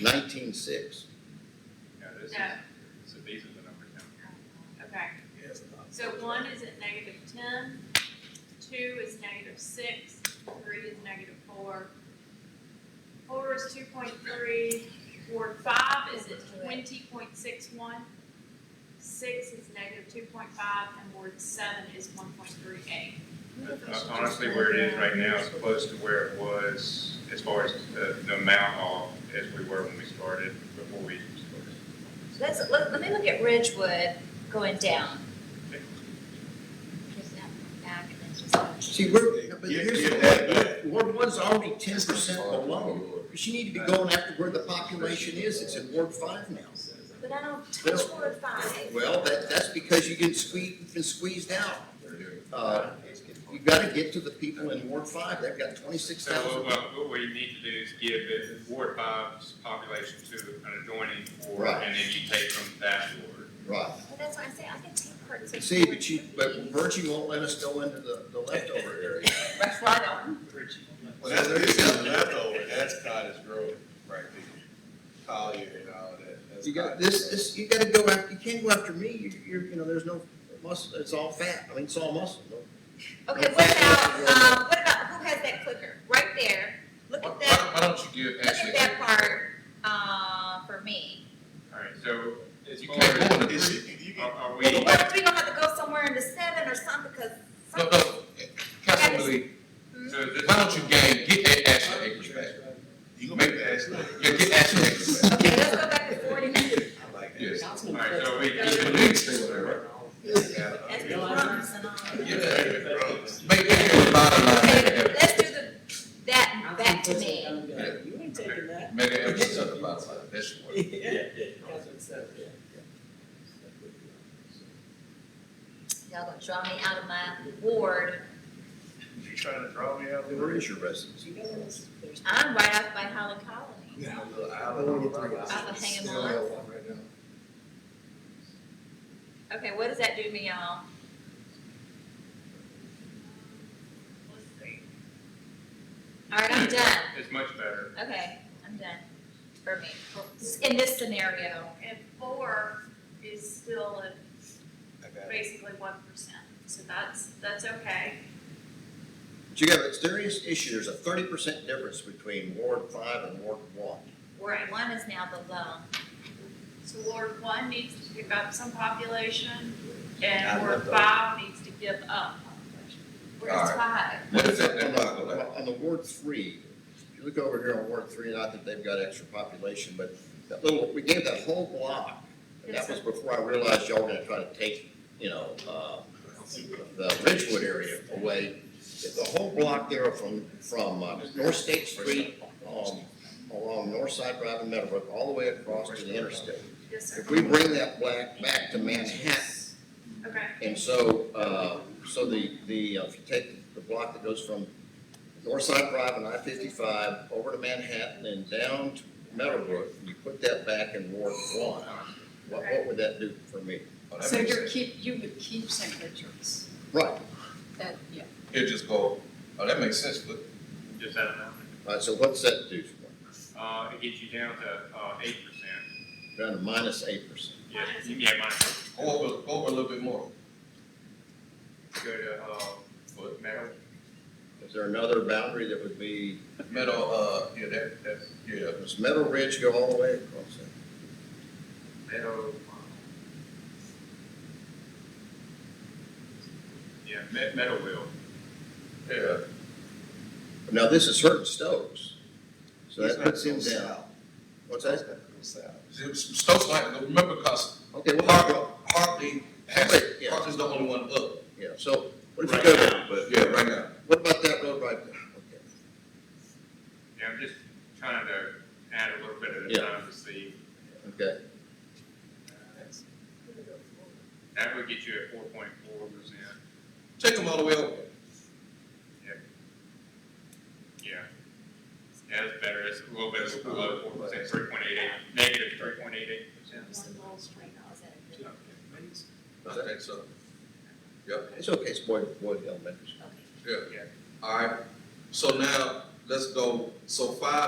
Nineteen-six. No, this is, No. so these are the numbers now. Okay, so one is at negative ten, two is negative six, three is negative four. Four is two point three, Ward five is at twenty point six one. Six is negative two point five, and Ward seven is one point three eight. But Honestly, where it is right now is close to where it was as far as the, the amount off as we were when we started, before we started. Let's, let, let me look at Ridgewood going down. Okay. Just down back and then just go. See, we're, but Yeah, here's yeah, the way, Ward one's already ten percent below. She need to be going after where the population is, it's in Ward five now. But I don't Well- touch Ward five. Well, that, that's because you get squeezed, you've been squeezed out. Uh, You gotta get to the people in Ward five, they've got twenty-six So thousand. what, what we need to do is give it Ward five's population to an adjoining ward, Right. and then you take from that ward. Right. But that's why I say I can take parts of. See, but you, but Virgie won't let us go into the, the leftover area. That's why I don't. Um, Well, that's, that's leftover, that's cottage grove, right there. Collier and all that, that's. You got, cottage this, grove. this, you gotta go after, you can't go after me, you, you're, you know, there's no muscle, it's all fat, I mean, it's all muscle. no- Okay, what about, um, what about, who has that clicker? Right there, look Why, at that, why- why don't you give look at Ashley, that part, uh, for me. All right, so as you far can't as, go in the Is three. it- you Oh, are, can- are we, But what if we gonna have to go somewhere into seven or something, because No, something, no, Councilman Lee, so this, why don't you gain, get that Ashley acres back? You Make- can ask that. Yeah, get Ashley acres back, okay, let's go back to forty minutes. I like that. yes. all right, so we, But give the it- league stay over there, right? That's Yeah. the promise and all. Yeah. Make, make it a bottom line, make Okay, it, let's do the, that back to me. You ain't taking that. make it emphasis on the bottom line, that's what. That's what it says. Y'all gonna draw me out of my ward. You trying to draw me out of the Where room? is your residence? You know, it's- there's- I'm right off by Holland Colony. Yeah. Little island. I would hang him on. Okay, what does that do me, y'all? Let's see. All right, I'm done. it's much better. Okay, I'm done. For me, for- in this scenario. And four is still at I got it. basically one percent, so that's, that's okay. But you got a serious issue, there's a thirty percent difference between Ward five and Ward one. Ward one is now below. So Ward one needs to pick up some population, I and Ward love five needs to give up population. Where's Alright. five? What is that, On that the- bottom on the- line? on the Ward three, if you look over here on Ward three, and I think they've got extra population, but that little, we gave that whole block. And that was before I realized y'all were gonna try to take, you know, uh, the Ridgewood area away. The whole block there from, from uh, North State Street, um, along North Side Drive and Meadowbrook, all the way across to the interstate. Yes, sir. If we bring that black back to Manhattan, Okay, and so, uh, so the, the, uh, if you take the block that goes from Northside Drive and I-55 over to Manhattan and down to Meadowbrook, you put that back in Ward One, what, what would that do for me? Oh, that So makes you're sense. keep, you would keep St. Richard's, Right, that, yeah. It'll just go, oh, that makes sense, look, just that amount. All right, so what's that do for me? Uh, it gets you down to, uh, eight percent. Down to minus eight percent. Yeah, yeah, minus, go over, go over a little bit more, go to, uh, but metal, Is there another boundary that would be, metal, uh, yeah, that, that's, yeah. does Meadow Ridge go all the way across there? metal. Yeah, me- metal wheel. Yeah, Now, this is Hurton Stokes, so He's that not puts him going down. south. What's That's that? not going south. See, Stokes like, remember, cause Okay, well, Hartley, Hartley has, Wait, yeah. Hartley's the only one up, yeah, so, what if you Right go to- now, but, yeah, right now. What about that road right there? Okay. yeah, I'm just trying to add a little bit at Yeah. a time to see. Okay, That would get you at four point four percent, Take them all the way over. yeah. Yeah, that's better, it's a little bit below four percent, three point eight eight, negative three point eight eight percent. One little string, oh, is that a good- I think so. Yep, it's okay, it's Boyd, Boyd Elementary. okay. yeah. All right, so now, let's go, so five